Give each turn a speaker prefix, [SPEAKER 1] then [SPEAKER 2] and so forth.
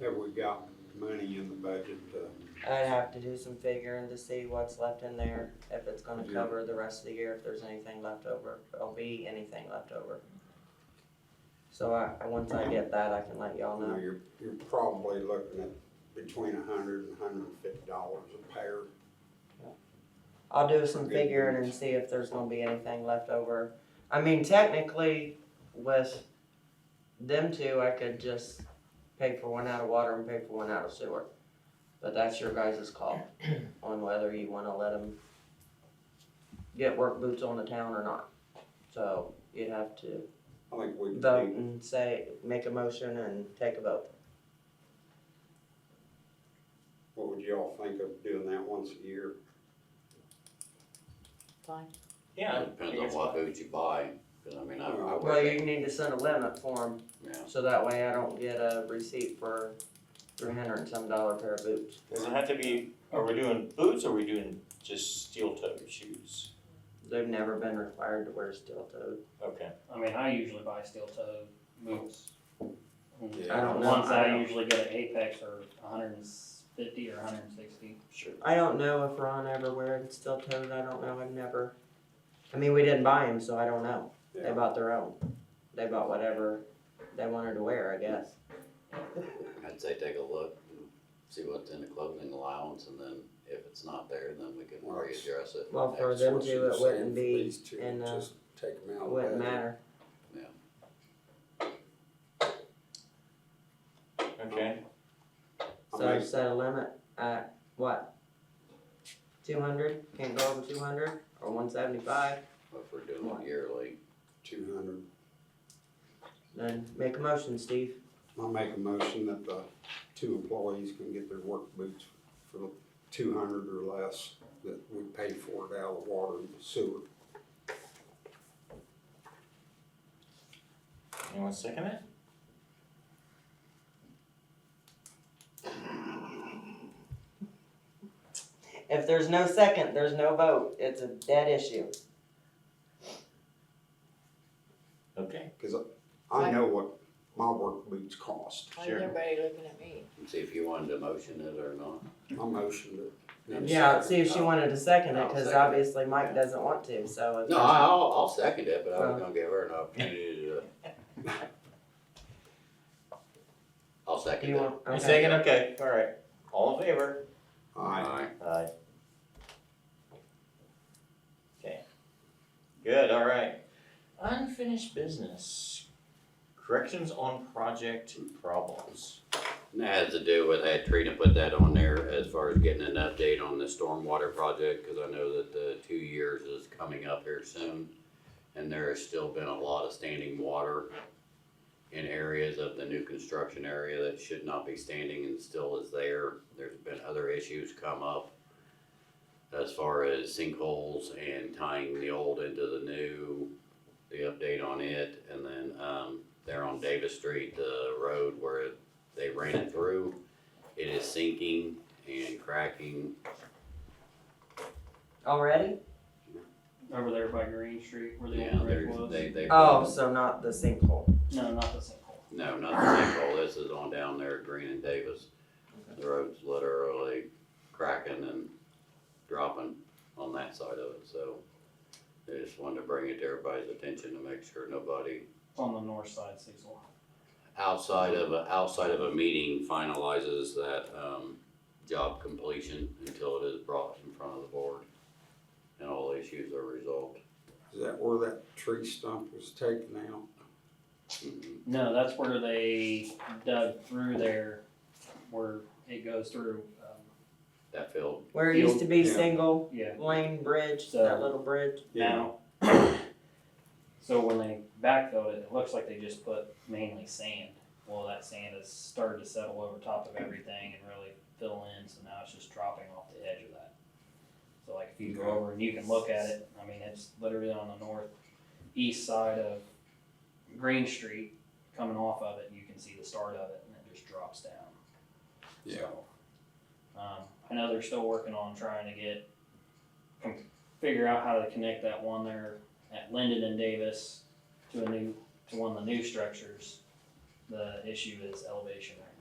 [SPEAKER 1] Have we got money in the budget to,
[SPEAKER 2] I'd have to do some figuring to see what's left in there, if it's gonna
[SPEAKER 1] Yeah.
[SPEAKER 2] cover the rest of the year, if there's anything left over, if there'll be anything left over. So I, I- once I get that, I can let y'all
[SPEAKER 1] you know,
[SPEAKER 2] know.
[SPEAKER 1] you're, you're probably looking at between a hundred and hundred and fifty dollars a pair.
[SPEAKER 2] I'll do some
[SPEAKER 1] Okay.
[SPEAKER 2] figuring and see if there's gonna be anything left over. I mean, technically, with them two, I could just pay for one out of water and pay for one out of sewer. But that's your guys' call on whether you wanna let them get work boots on the town or not. So you'd have to
[SPEAKER 1] I think we
[SPEAKER 2] vote
[SPEAKER 1] can
[SPEAKER 2] and say, make a motion and take a vote.
[SPEAKER 1] what would y'all think of doing that once a year?
[SPEAKER 3] Fine.
[SPEAKER 4] Yeah.
[SPEAKER 5] It Depends on what boots you buy, cause I mean, I, I
[SPEAKER 2] Well,
[SPEAKER 5] wear,
[SPEAKER 2] you need to send a limit for them
[SPEAKER 5] yeah,
[SPEAKER 2] So that way I don't get a receipt for three hundred and some dollar pair of boots.
[SPEAKER 4] Does it have to be, are we doing boots or are we doing just steel toed shoes?
[SPEAKER 2] They've never been required to wear steel toed.
[SPEAKER 4] Okay.
[SPEAKER 6] I mean, I usually buy steel toed boots.
[SPEAKER 2] I don't
[SPEAKER 6] The
[SPEAKER 2] know.
[SPEAKER 6] ones
[SPEAKER 2] I
[SPEAKER 6] I
[SPEAKER 2] don't-
[SPEAKER 6] usually get at Apex are hundred and fifty or hundred and sixty.
[SPEAKER 4] Sure.
[SPEAKER 2] I don't know if Ron ever wore steel toed, I don't know, I've never, I mean, we didn't buy them, so I don't know. They
[SPEAKER 1] Yeah.
[SPEAKER 2] bought their own. They bought whatever they wanted to wear, I guess.
[SPEAKER 5] I'd say take a look, and see what's in the clothing allowance, and then if it's not there, then we can readdress it.
[SPEAKER 2] Well, for
[SPEAKER 5] next
[SPEAKER 2] them
[SPEAKER 5] one.
[SPEAKER 2] to- it wouldn't be in, uh,
[SPEAKER 1] Just take them out.
[SPEAKER 2] It
[SPEAKER 1] of
[SPEAKER 2] wouldn't
[SPEAKER 1] budget.
[SPEAKER 2] matter.
[SPEAKER 4] Okay.
[SPEAKER 1] I
[SPEAKER 2] So
[SPEAKER 1] make-
[SPEAKER 2] set a limit at what? Two hundred? Can't go over two hundred or one seventy-five?
[SPEAKER 5] If we're doing it yearly,
[SPEAKER 1] Two hundred.
[SPEAKER 2] Then make a motion, Steve.
[SPEAKER 1] I'll make a motion that the two employees can get their work boots for two hundred or less, that we pay for it out of water and sewer.
[SPEAKER 4] Anyone second it?
[SPEAKER 2] If there's no second, there's no vote. It's a dead issue.
[SPEAKER 4] Okay.
[SPEAKER 1] I know what my work boots cost.
[SPEAKER 3] Why
[SPEAKER 4] Sure.
[SPEAKER 3] is everybody looking at me?
[SPEAKER 5] and see if you wanted to motion it or not.
[SPEAKER 1] I motioned it.
[SPEAKER 5] And
[SPEAKER 2] Yeah,
[SPEAKER 5] second.
[SPEAKER 2] see if she wanted to second it,
[SPEAKER 5] I'll
[SPEAKER 2] cause
[SPEAKER 5] second it.
[SPEAKER 2] obviously Mike doesn't want to, so. if
[SPEAKER 5] No,
[SPEAKER 2] there's-
[SPEAKER 5] I- I'll, I'll second it, but I
[SPEAKER 2] Well.
[SPEAKER 5] was gonna give her an opportunity to. I'll second
[SPEAKER 2] You
[SPEAKER 5] it.
[SPEAKER 2] want,
[SPEAKER 4] You
[SPEAKER 2] okay.
[SPEAKER 4] second, okay, alright. All in favor?
[SPEAKER 1] Aye.
[SPEAKER 4] Aye. Okay. Good, alright. Unfinished business. Corrections on project problems.
[SPEAKER 5] And That has to do with, I had Trina put that on there as far as getting an update on the stormwater project, cause I know that the two years is coming up here soon. And there has still been a lot of standing water in areas of the new construction area that should not be standing and still is there. There's been other issues come up as far as sinkholes and tying the old into the new, the update on it. And then, um, there on Davis Street, the road where they ran it through. It is sinking and cracking.
[SPEAKER 2] Already?
[SPEAKER 6] Over there by Green Street where the
[SPEAKER 5] Yeah,
[SPEAKER 6] old rig
[SPEAKER 5] they're,
[SPEAKER 6] was.
[SPEAKER 5] they, they.
[SPEAKER 2] Oh, so not the sinkhole.
[SPEAKER 6] No, not the sinkhole.
[SPEAKER 5] No, not the sinkhole. This is on down there at Green and Davis. The road's literally cracking and dropping on that side of it, so. I just wanted to bring it to everybody's attention to make sure nobody
[SPEAKER 6] It's on the north side, oh Cecil.
[SPEAKER 5] outside of a, outside of a meeting finalizes that, um, job completion until it is brought in front of the board. And all issues are resolved.
[SPEAKER 1] Is that where that tree stump was taken out?
[SPEAKER 5] Mhm.
[SPEAKER 6] No, that's where they dug through there, where it goes through, um,
[SPEAKER 5] that field.
[SPEAKER 2] Where it used to be
[SPEAKER 1] Yeah.
[SPEAKER 2] single
[SPEAKER 6] yeah,
[SPEAKER 2] lane bridge, that little bridge.
[SPEAKER 6] now. So when they backfilled it, it looks like they just put mainly sand. Well, that sand has started to settle over top of everything and really fill in, so now it's just dropping off the edge of that. So like if you go over and you can look at it, I mean, it's literally on the northeast side of Green Street, coming off of it, you can see the start of it and it just drops down.
[SPEAKER 1] Yeah.
[SPEAKER 6] So, Um, I know they're still working on trying to get, figure out how to connect that one there at Linden and Davis to a new, to one of the new structures. The issue is elevation right